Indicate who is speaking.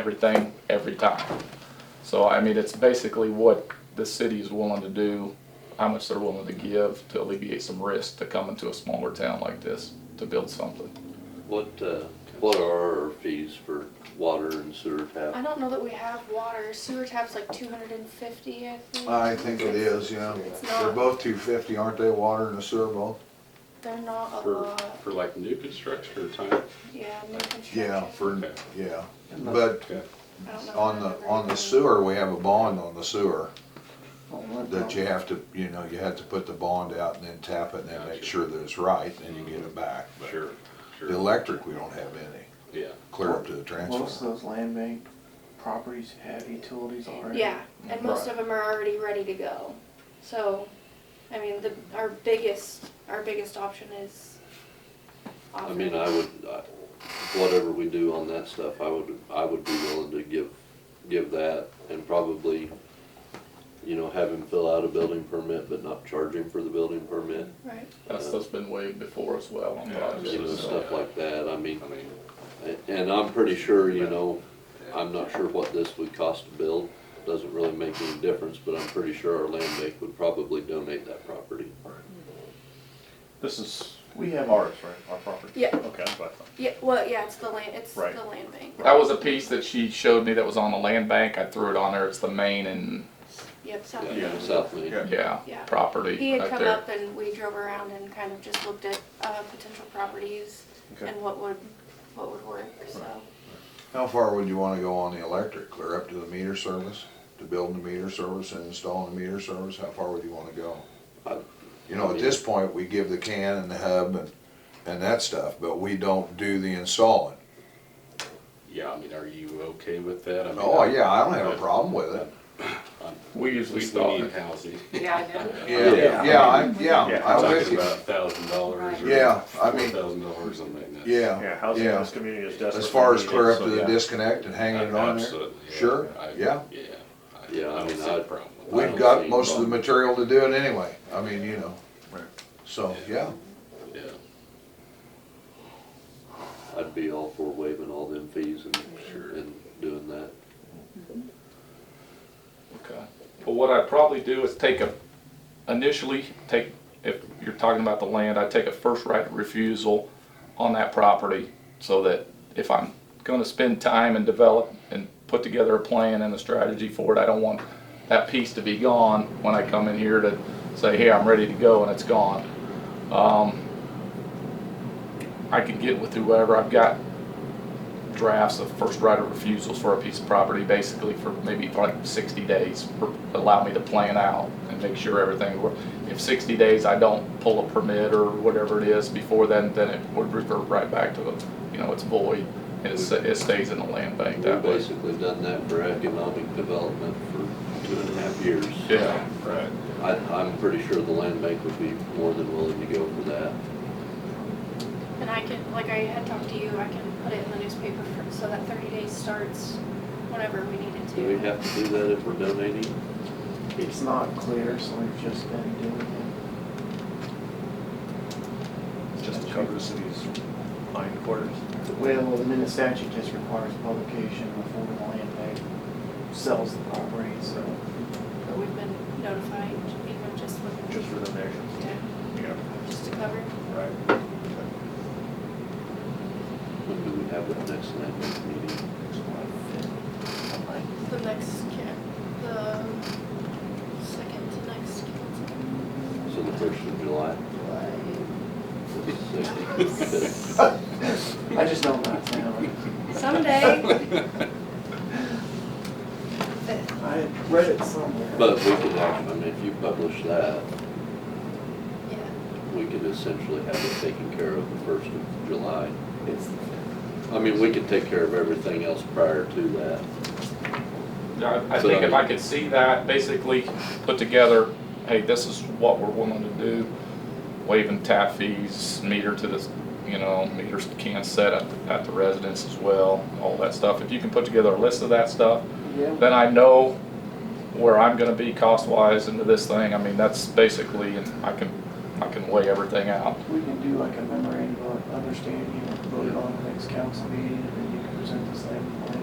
Speaker 1: everything, every time. So, I mean, it's basically what the city is willing to do, how much they're willing to give to alleviate some risk to come into a smaller town like this to build something.
Speaker 2: What, uh, what are our fees for water and sewer
Speaker 3: I
Speaker 2: tap?
Speaker 3: don't know that we have water. Sewer tap's like two hundred and fifty, I think.
Speaker 4: I think it is, yeah.
Speaker 3: It's
Speaker 4: They're
Speaker 3: not-
Speaker 4: both two fifty, aren't they, water and the sewer both?
Speaker 3: They're not a
Speaker 5: For,
Speaker 3: lot.
Speaker 5: for like new construction or time?
Speaker 3: Yeah, new construction.
Speaker 4: Yeah, for,
Speaker 5: Okay.
Speaker 4: yeah. But
Speaker 5: Okay.
Speaker 3: I don't know
Speaker 4: on
Speaker 3: that I've
Speaker 4: the,
Speaker 3: ever
Speaker 4: on the
Speaker 3: done-
Speaker 4: sewer, we have a bond on the sewer that you
Speaker 6: Well,
Speaker 4: have to, you know, you have to put the bond out and then tap it and then make
Speaker 5: Gotcha.
Speaker 4: sure that it's right, then you get it back. But
Speaker 5: Sure, sure.
Speaker 4: The electric, we don't have any,
Speaker 5: Yeah.
Speaker 4: clear up to the
Speaker 6: Most of
Speaker 4: transformer.
Speaker 6: those land bank properties have utilities already.
Speaker 3: Yeah, and most of them are already ready to go. So, I mean, the, our biggest, our biggest option is.
Speaker 2: I mean, I would, I- whatever we do on that stuff, I would, I would be willing to give, give that and probably, you know, have him fill out a building permit, but not charge him for the building permit,
Speaker 3: Right.
Speaker 1: That stuff's been waived before as well on
Speaker 5: Yeah,
Speaker 1: projects.
Speaker 2: you know,
Speaker 1: so-
Speaker 2: stuff like that. I mean,
Speaker 5: I mean,
Speaker 2: and I'm pretty sure, you know, I'm not sure what this would cost to build. Doesn't really make any difference, but I'm pretty sure our land bank would probably donate that property.
Speaker 7: This is, we have ours, right, our property?
Speaker 3: Yeah.
Speaker 7: Okay, that's what I thought.
Speaker 3: Yeah, well, yeah, it's the land, it's the
Speaker 7: Right.
Speaker 3: land bank.
Speaker 1: That was a piece that she showed me that was on the land bank. I threw it on there. It's the main and,
Speaker 3: Yep, so.
Speaker 2: Yeah, South Main.
Speaker 1: yeah,
Speaker 3: Yeah.
Speaker 1: property
Speaker 3: He had
Speaker 1: right
Speaker 3: come
Speaker 1: there.
Speaker 3: up and we drove around and kind of just looked at, uh, potential properties
Speaker 7: Okay.
Speaker 3: and what would, what would work, so.
Speaker 4: How far would you wanna go on the electric? Clear up to the meter service, to building the meter service and installing the meter service? How far would you wanna go?
Speaker 2: I-
Speaker 4: You know, at this point, we give the can and the hub and, and that stuff, but we don't do the installing.
Speaker 5: yeah, I mean, are you okay with that? I mean,
Speaker 4: Oh,
Speaker 5: I-
Speaker 4: yeah, I don't have a problem with it.
Speaker 1: We
Speaker 5: At
Speaker 1: usually
Speaker 5: least we
Speaker 1: install
Speaker 5: need
Speaker 1: it.
Speaker 5: housing.
Speaker 4: Yeah, yeah, I, yeah,
Speaker 7: Yeah.
Speaker 4: I'm with
Speaker 5: Talking
Speaker 4: you.
Speaker 5: about a thousand dollars or.
Speaker 4: Yeah, I mean-
Speaker 5: Four thousand dollars, something like that.
Speaker 7: Yeah,
Speaker 4: Yeah,
Speaker 7: housing in
Speaker 4: yeah.
Speaker 7: this community is desperate.
Speaker 4: As far as
Speaker 7: for
Speaker 4: clear
Speaker 7: needs,
Speaker 4: up to
Speaker 7: so,
Speaker 4: the
Speaker 7: yeah.
Speaker 4: disconnect and hanging it on there,
Speaker 5: Absolutely, yeah.
Speaker 4: sure,
Speaker 5: I-
Speaker 4: yeah.
Speaker 5: Yeah. I-
Speaker 2: Yeah, I
Speaker 5: I don't
Speaker 2: mean,
Speaker 5: see
Speaker 2: I-
Speaker 5: a problem with
Speaker 2: we-
Speaker 5: that.
Speaker 4: We've got most of the material to do it anyway, I mean, you know. So, yeah,
Speaker 5: Yeah.
Speaker 2: I'd be all for waiving all them fees and,
Speaker 5: Sure.
Speaker 2: and doing that.
Speaker 1: Okay. Well, what I'd probably do is take a, initially, take, if you're talking about the land, I'd take a first right of refusal on that property so that if I'm gonna spend time and develop and put together a plan and a strategy for it, I don't want that piece to be gone when I come in here to say, hey, I'm ready to go and it's gone. Um, I could get with whoever. I've got drafts of first right of refusals for a piece of property, basically for maybe like sixty days, for- allow me to plan out and make sure everything, wor- if sixty days I don't pull a permit or whatever it is before then, then it would revert right back to, the, you know, it's void, and it's- it stays in the land bank
Speaker 2: We've
Speaker 1: that way.
Speaker 2: basically done that for economic development for two and a half years.
Speaker 1: Yeah,
Speaker 7: Right.
Speaker 2: I, I'm pretty sure the land bank would be more than willing to go for that.
Speaker 3: And I can, like I had talked to you, I can put it in the newspaper for, so that thirty days starts whenever we need it to.
Speaker 2: Do we have to do that if we're donating?
Speaker 6: It's not clear, so we've just been doing
Speaker 7: Just to cover the city's line quarters.
Speaker 6: it. Well, the minute statute just requires publication before the land bank sells the property, so
Speaker 3: But we've been notified, even just with,
Speaker 7: Just for the nation.
Speaker 3: to-
Speaker 7: Yeah,
Speaker 3: just to cover.
Speaker 7: right.
Speaker 2: When do we have that next land bank meeting?
Speaker 6: it's like, like,
Speaker 3: The next camp, the second to next council.
Speaker 2: So the first of July? July.
Speaker 6: I just don't know it's now.
Speaker 3: Someday.
Speaker 6: I had read it somewhere.
Speaker 2: But we could actually, I mean, if you publish that,
Speaker 3: Yeah.
Speaker 2: we could essentially have it taken care of the first of July.
Speaker 6: It's,
Speaker 2: I mean, we could take care of everything else prior to that.
Speaker 1: Yeah, I I think if I could see that, basically put together, hey, this is what we're willing to do, waiving tap fees, meter to this, you know, meters can set up at the residence as well, all that stuff. If you can put together a list of that stuff,
Speaker 6: yeah,
Speaker 1: then I know where I'm gonna be cost-wise into this thing. I mean, that's basically, and I can, I can weigh everything out.
Speaker 6: we can do like a memorandum of understanding, and vote on the next council meeting, and then you can present this land plan.